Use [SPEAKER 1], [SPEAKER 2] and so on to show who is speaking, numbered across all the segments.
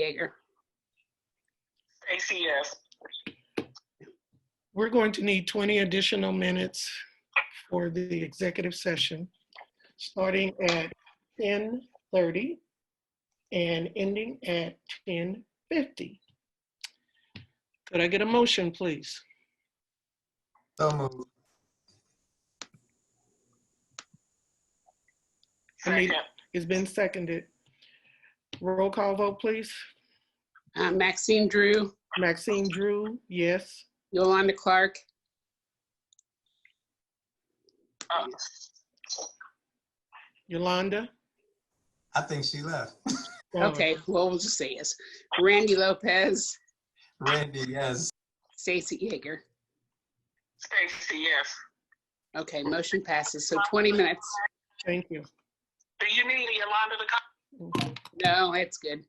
[SPEAKER 1] Jaeger.
[SPEAKER 2] Stacy, yes.
[SPEAKER 3] We're going to need 20 additional minutes for the executive session, starting at 10:30 and ending at 10:50. Could I get a motion, please?
[SPEAKER 4] So moved.
[SPEAKER 3] I mean-
[SPEAKER 2] Second,
[SPEAKER 3] It's been seconded. Roll call vote, please.
[SPEAKER 1] Uh, Maxine Drew,
[SPEAKER 3] Maxine Drew, yes.
[SPEAKER 1] Yolanda Clark,
[SPEAKER 2] uh,
[SPEAKER 3] Yolanda?
[SPEAKER 4] I think she left.
[SPEAKER 3] Oh.
[SPEAKER 1] okay, well, we'll just say yes. Randy Lopez,
[SPEAKER 4] Randy, yes.
[SPEAKER 1] Stacy Jaeger.
[SPEAKER 2] Stacy, yes.
[SPEAKER 1] Okay, motion passes. So 20 minutes.
[SPEAKER 3] Thank you.
[SPEAKER 2] Do you need Yolanda to come?
[SPEAKER 1] No, that's good.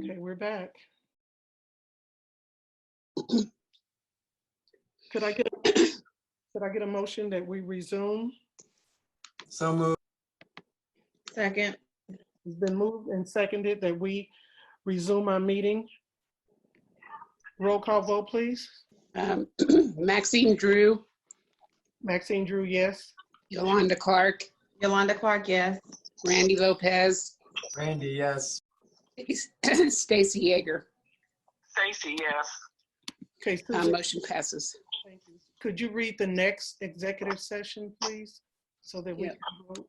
[SPEAKER 3] Okay, we're back. Could I get, a- could I get a motion that we resume?
[SPEAKER 4] So moved.
[SPEAKER 5] Second,
[SPEAKER 3] It's been moved and seconded that we resume our meeting. Roll call vote, please.
[SPEAKER 1] Um, Maxine Drew,
[SPEAKER 3] Maxine Drew, yes.
[SPEAKER 1] Yolanda Clark,
[SPEAKER 5] Yolanda Clark, yes.
[SPEAKER 1] Randy Lopez,
[SPEAKER 4] Randy, yes.
[SPEAKER 1] Stacy Jaeger.
[SPEAKER 2] Stacy, yes.
[SPEAKER 3] Okay,
[SPEAKER 1] Uh,
[SPEAKER 3] Susan,
[SPEAKER 1] Motion passes.
[SPEAKER 3] thank you. could you read the next executive session, please? So that we
[SPEAKER 1] Yeah.
[SPEAKER 3] can vote.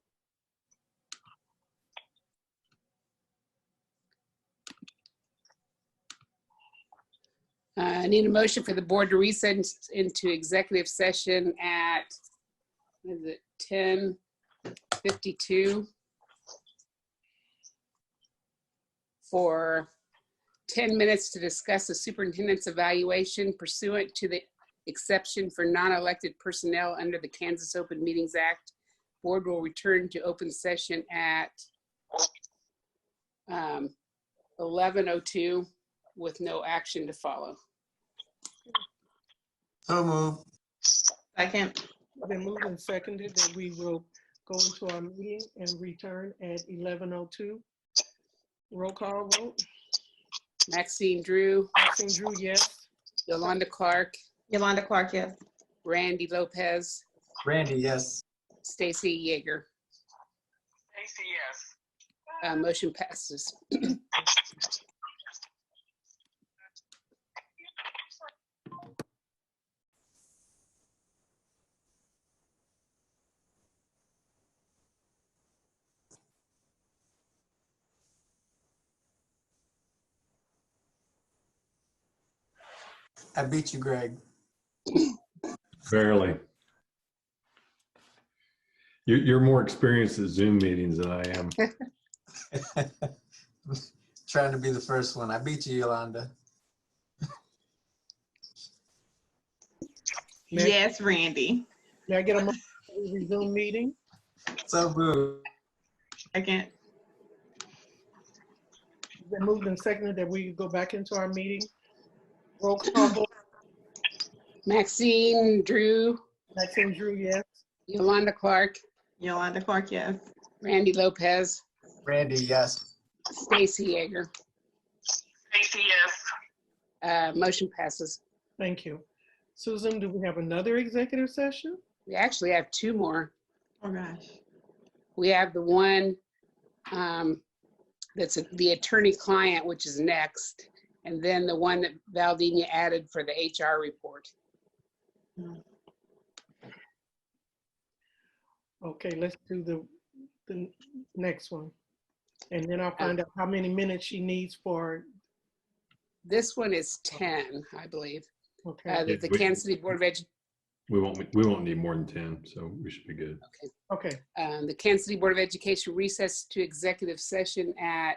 [SPEAKER 1] Uh, I need a motion for the board to resend into executive session at, what is it, 10:52? For 10 minutes to discuss the superintendent's evaluation pursuant to the exception for non-elected personnel under the Kansas Open Meetings Act. Board will return to open session at um, 11:02 with no action to follow.
[SPEAKER 4] So moved.
[SPEAKER 5] Second,
[SPEAKER 3] Been moved and seconded that we will go into our meeting and return at 11:02. Roll call vote.
[SPEAKER 1] Maxine Drew,
[SPEAKER 3] Maxine Drew, yes.
[SPEAKER 1] Yolanda Clark,
[SPEAKER 5] Yolanda Clark, yes.
[SPEAKER 1] Randy Lopez,
[SPEAKER 4] Randy, yes.
[SPEAKER 1] Stacy Jaeger.
[SPEAKER 2] Stacy, yes.
[SPEAKER 1] Uh, Motion passes.
[SPEAKER 4] I beat you, Greg.
[SPEAKER 6] Barely. You're, you're more experienced at Zoom meetings than I am.
[SPEAKER 4] Trying to be the first one. I beat you, Yolanda.
[SPEAKER 3] Next.
[SPEAKER 5] Yes, Randy.
[SPEAKER 3] May I get a motion to resume meeting?
[SPEAKER 4] So moved.
[SPEAKER 5] Second,
[SPEAKER 3] It's Been moved and seconded that we go back into our meeting. Roll call vote.
[SPEAKER 1] Maxine Drew,
[SPEAKER 3] Maxine Drew, yes.
[SPEAKER 1] Yolanda Clark,
[SPEAKER 5] Yolanda Clark, yes.
[SPEAKER 1] Randy Lopez,
[SPEAKER 4] Randy, yes.
[SPEAKER 1] Stacy Jaeger.
[SPEAKER 2] Stacy, yes.
[SPEAKER 1] Uh, Motion passes.
[SPEAKER 3] Thank you. Susan, do we have another executive session?
[SPEAKER 1] We actually have two more.
[SPEAKER 5] Oh, gosh.
[SPEAKER 1] We have the one um, that's the attorney-client, which is next, and then the one that Valdenia added for the HR report.
[SPEAKER 3] Okay, let's do the, the next one. And then I'll find out how many minutes she needs for,
[SPEAKER 1] This one is 10, I believe, uh,
[SPEAKER 3] okay,
[SPEAKER 1] that the Kansas City Board of Education
[SPEAKER 6] We won't, we won't need more than 10, so we should be good.
[SPEAKER 3] okay.
[SPEAKER 1] um, the Kansas City Board of Education recess to executive session at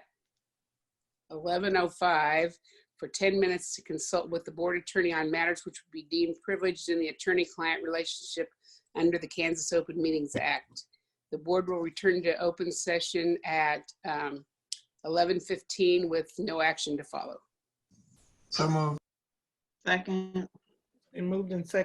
[SPEAKER 1] 11:05 for 10 minutes to consult with the board attorney on matters which would be deemed privileged in the attorney-client relationship under the Kansas Open Meetings Act. The board will return to open session at um, 11:15 with no action to follow.
[SPEAKER 4] So moved.
[SPEAKER 5] Second.
[SPEAKER 3] And moved and seconded